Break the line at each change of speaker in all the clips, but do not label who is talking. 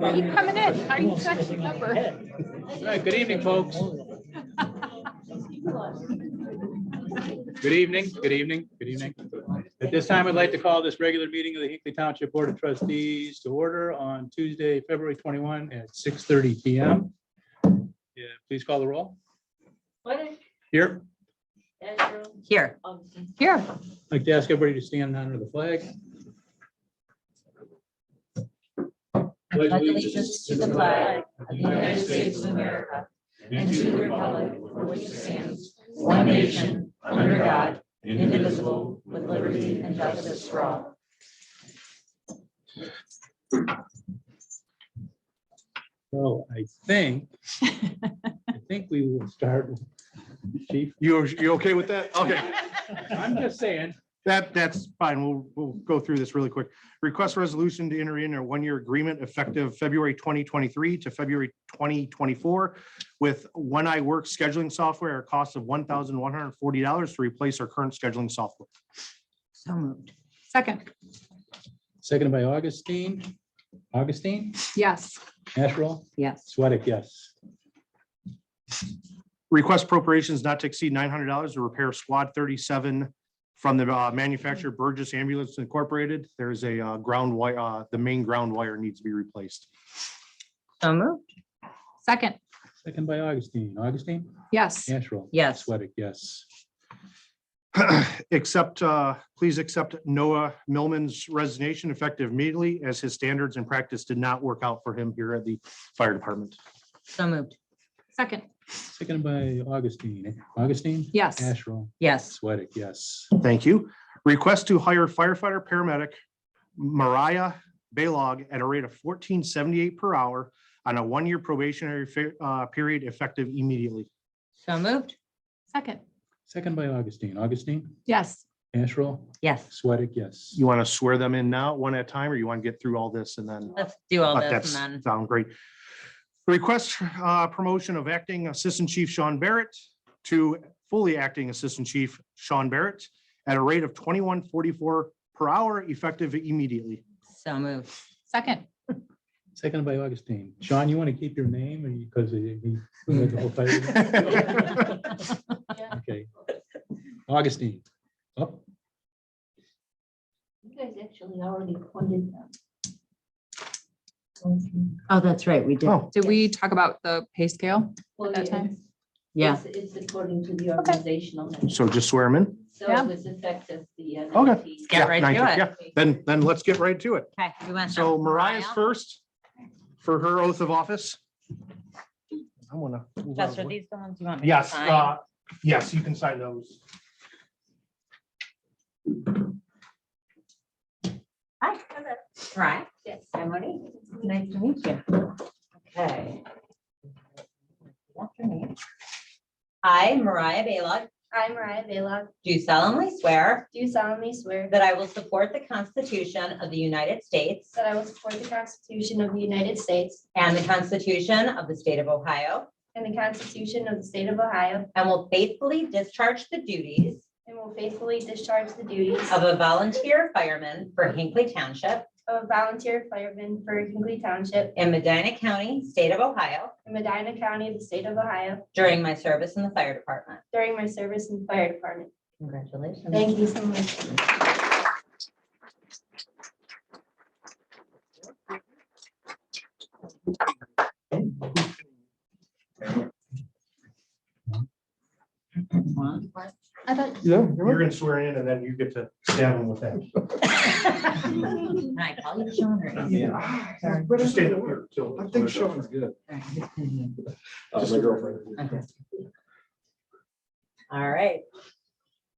Are you coming in? Are you checking number?
All right, good evening, folks. Good evening, good evening, good evening. At this time, I'd like to call this regular meeting of the Hinkley Township Board of Trustees to order on Tuesday, February 21 at 6:30 PM. Yeah, please call the roll.
What
Here,
is
Here,
Andrew?
here.
I'd like to ask everybody to stand under the flag.
Pledge allegiance to the flag of the United States of America and to the republic for which it stands, one nation, under God, indivisible, with liberty and justice for all.
So I think, I think we will start. with Chief,
You, you okay with that? Okay,
I'm just saying,
that, that's fine. We'll, we'll go through this really quick. Request resolution to enter in a one-year agreement effective February 2023 to February 2024 with One Eye Work scheduling software at a cost of $1,140 to replace our current scheduling software.
So moved. Second,
seconded by Augustine, Augustine,
yes.
Asherall,
Yes.
Sweattick, yes.
Request appropriations not to exceed nine hundred dollars to repair Squad thirty-seven from the uh, manufacturer Burgess Ambulance Incorporated. There is a uh, ground wire, uh, the main ground wire needs to be replaced.
So moved.
Second,
Second by Augustine, Augustine,
yes.
Asherall.
Yes.
Sweattick, yes.
Accept, uh, please accept Noah Millman's resignation effective immediately as his standards and practice did not work out for him here at the fire department.
So moved.
Second,
Seconded by Augustine, Augustine.
yes.
Asherall,
Yes.
Sweattick, yes.
Thank you. Request to hire firefighter paramedic Mariah Baylog at a rate of fourteen seventy-eight per hour on a one-year probationary fa- uh, period effective immediately.
So moved.
Second,
Second by Augustine, Augustine,
yes.
Asherall,
Yes.
Sweattick, yes.
You want to swear them in now, one at a time, or you want to get through all this and then?
Let's do all
Uh,
this
that's-
and then.
Sound great. Request uh, promotion of acting Assistant Chief Sean Barrett to fully acting Assistant Chief Sean Barrett at a rate of twenty-one forty-four per hour effective immediately.
So moved.
Second,
Seconded by Augustine. Sean, you want to keep your name or because he. he had the whole title? Okay. Augustine. Oh. Up.
You guys actually already appointed them.
Oh, that's right. We did.
Oh,
did we talk about the pay scale?
Well,
At that
it's-
time?
it's-
Yeah.
It's according to the organizational. measure.
so just swear him in?
So
Yeah.
it was effective the. uh,
Okay.
19th.
Get
Yeah,
right
nine-
to it.
yeah. Then, then let's get right to it.
Okay. we went
So
to
Mariah's
Mariah.
first for her oath of office. I want to. move out of
Just
the
are
way.
these the ones you want me to
Yes,
sign?
uh, yes, you can sign those.
Hi. Right.
Yes, I'm ready.
Nice to meet you. Okay. After me. I, Mariah Balog,
I, Mariah Bela,
do solemnly swear
do solemnly swear
that I will support the Constitution of the United States
that I will support the Constitution of the United States
and the Constitution of the State of Ohio,
and the Constitution of the State of Ohio,
and will faithfully discharge the duties
and will faithfully discharge the duties
of a volunteer fireman for Hinkley Township
of a volunteer fireman for Hinkley Township
in Medina County, state of Ohio,
in Medina County, the State of Ohio,
during my service in the fire department.
during my service in the fire department.
Congratulations.
Thank you so much. I thought
Yeah. You're gonna swear in and then you get to stab him with that.
Can I call you Sean or?
Just stay there till-
I think Sean's good.
Just-
Uh, my girlfriend.
All right.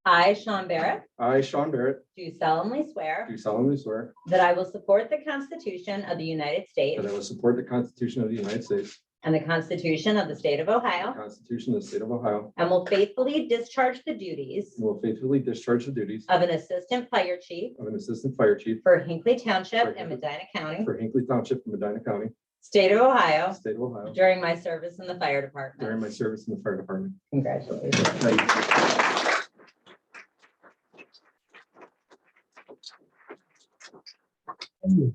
I, Sean Barrett,
I, Sean Barrett,
do solemnly swear
do solemnly swear
that I will support the Constitution of the United States
that I will support the Constitution of the United States,
and the Constitution of the state of
the
Ohio,
Constitution of the State of Ohio,
and will faithfully discharge the duties
and will faithfully discharge the duties
of an assistant fire chief
of an Assistant Fire Chief
for Hinkley Township and Medina County,
for Hinkley Township in Medina County,
state of Ohio,
State of Ohio,
during my service in the fire department.
during my service in the Fire Department.
Congratulations.